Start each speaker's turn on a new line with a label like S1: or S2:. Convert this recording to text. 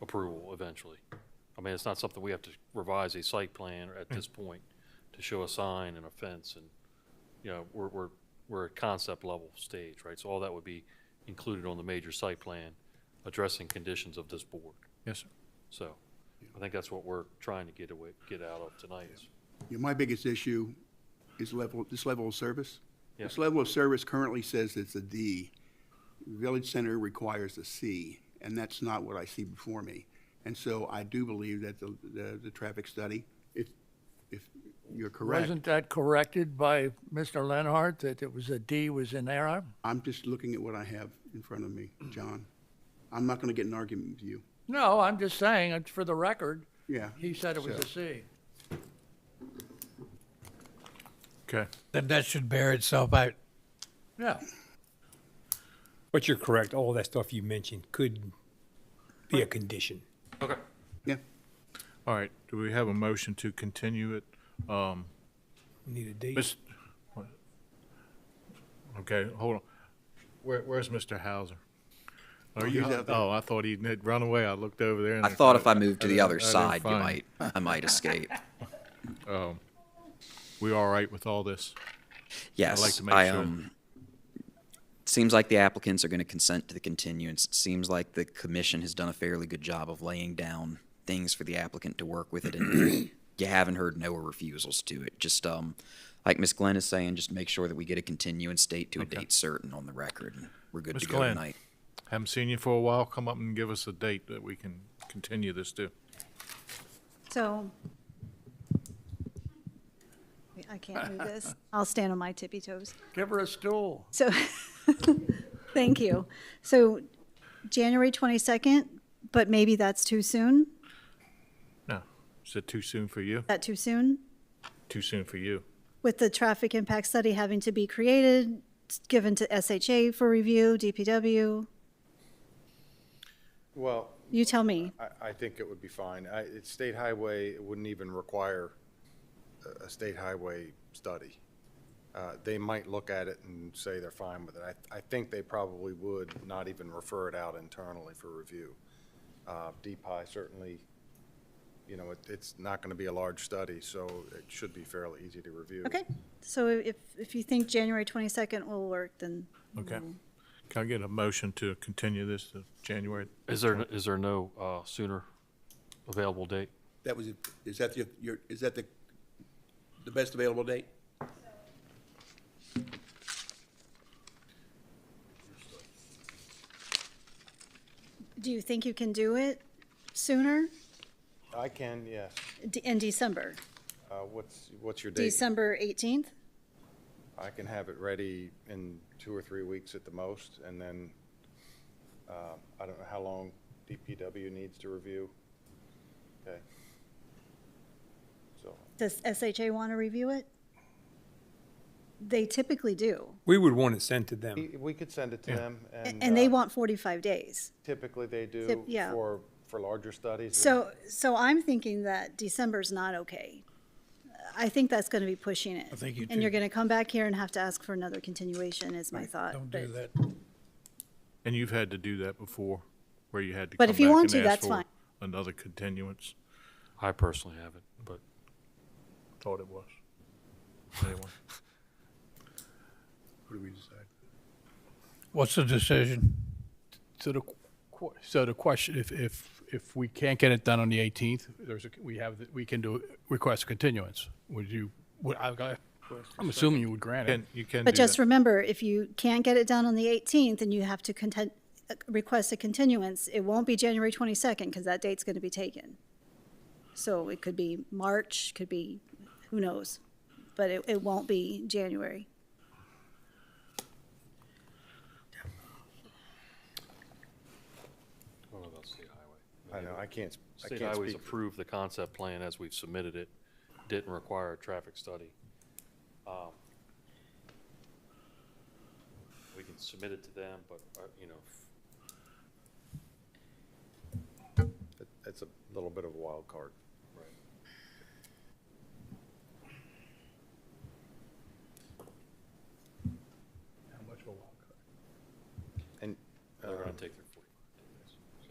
S1: approval eventually. I mean, it's not something we have to revise a site plan at this point to show a sign and a fence and, you know, we're, we're, we're at concept level stage, right? So all that would be included on the major site plan, addressing conditions of this board.
S2: Yes, sir.
S1: So I think that's what we're trying to get away, get out of tonight is
S3: You know, my biggest issue is level, this level of service.
S1: Yeah.
S3: This level of service currently says it's a D. Village Center requires a C, and that's not what I see before me. And so I do believe that the, the, the traffic study, if, if you're correct,
S2: Wasn't that corrected by Mr. Lenhart that it was a D was in error?
S3: I'm just looking at what I have in front of me, John. I'm not gonna get in an argument with you.
S2: No, I'm just saying, it's for the record,
S3: Yeah.
S2: he said it was a
S3: So-
S2: C.
S4: Okay.
S5: Then that should bear itself out.
S2: Yeah,
S6: But you're correct. All that stuff you mentioned could be a condition.
S3: Yeah,
S4: All right. Do we have a motion to continue it? Um,
S6: Need a date.
S4: Miss, what? okay, hold on. Where, where's Mr. Hauser? Are you,
S3: he's out there.
S4: oh, I thought he had run away. I looked over there. and
S7: I thought if I moved to the
S4: didn't- I
S7: other
S4: didn't
S7: side, you
S4: find-
S7: might, I might escape.
S4: We all right with all this?
S7: Yes,
S4: like to make
S7: I
S4: sure.
S7: um. Seems like the applicants are going to consent to the continuance. It seems like the commission has done a fairly good job of laying down things for the applicant to work with it, and you haven't heard no refusals to it. Just um, like Ms. Glenn is saying, just make sure that we get a continuance date to a date certain on the record, and we're good
S4: Ms.
S7: to go
S4: Glenn.
S7: tonight.
S4: Haven't seen you for a while. Come up and give us a date that we can continue this to.
S8: So I can't move this. I'll stand on my tippy toes.
S2: give her a stool.
S8: So, thank you. So January 22nd, but maybe that's too soon?
S4: No, is it too soon for you?
S8: That too soon?
S4: Too soon for you.
S8: With the traffic impact study having to be created, given to SHA for review, DPW,
S9: Well,
S8: you tell me.
S9: I, I think it would be fine. I, it's state highway, it wouldn't even require a, a state highway study. Uh, they might look at it and say they're fine with it. I, I think they probably would not even refer it out internally for review. Uh, DPI certainly, you know, it, it's not gonna be a large study, so it should be fairly easy to review.
S8: Okay, so if, if you think January 22nd will work, then
S4: Okay. Can I get a motion to continue this to January?
S1: Is there, is there no uh, sooner available date?
S3: that was, is that the, your, is that the, the best available date?
S8: do you think you can do it sooner?
S9: I can, yes.
S8: D- In December?
S9: Uh, what's, what's your date?
S8: December 18th?
S9: I can have it ready in two or three weeks at the most, and then, uh, I don't know how long DPW needs to review. Okay. So,
S8: Does SHA want to review it? They typically do,
S6: We would want it sent to them.
S9: we-
S1: Um,
S9: we could send it to them,
S8: a-
S9: and.
S8: and they
S9: uh,
S8: want 45 days.
S9: Typically, they do
S8: Tip- yeah.
S9: for, for larger studies.
S8: So, so I'm thinking that December's not okay. I think that's going to be pushing it. I
S5: think you
S8: And you're
S5: do.
S8: going to come back here and have to ask for another continuation, is my thought.
S5: Don't
S8: but-
S5: do that.
S4: And you've had to do that before, where you had to.
S8: But
S4: come
S8: if you
S4: back
S8: want
S4: and
S8: to,
S4: ask
S8: that's
S4: for
S8: fine.
S4: Another continuance,
S1: I personally haven't, but
S4: thought it was. Anyway.
S3: What do we decide?
S5: What's the decision?
S4: So the, qu- so the question, if, if, if we can't get it done on the 18th, there's, a- we have, the- we can do, request a continuance. Would you, would, I, I- I'm assuming you would grant it. You can
S8: But just remember, if you can't get it done on the 18th and you have to content, uh, request a continuance, it won't be January 22nd because that date's going to be taken. So it could be March, could be, who knows? But it, it won't be January.
S1: I don't know about state highway.
S9: I know, I can't, s- I
S1: State
S9: can't
S1: highways
S9: speak.
S1: approved the concept plan as we've submitted it, didn't require a traffic study. Um, We can submit it to them, but, uh, you know,
S9: That's a little bit of a wild card. uh, Um,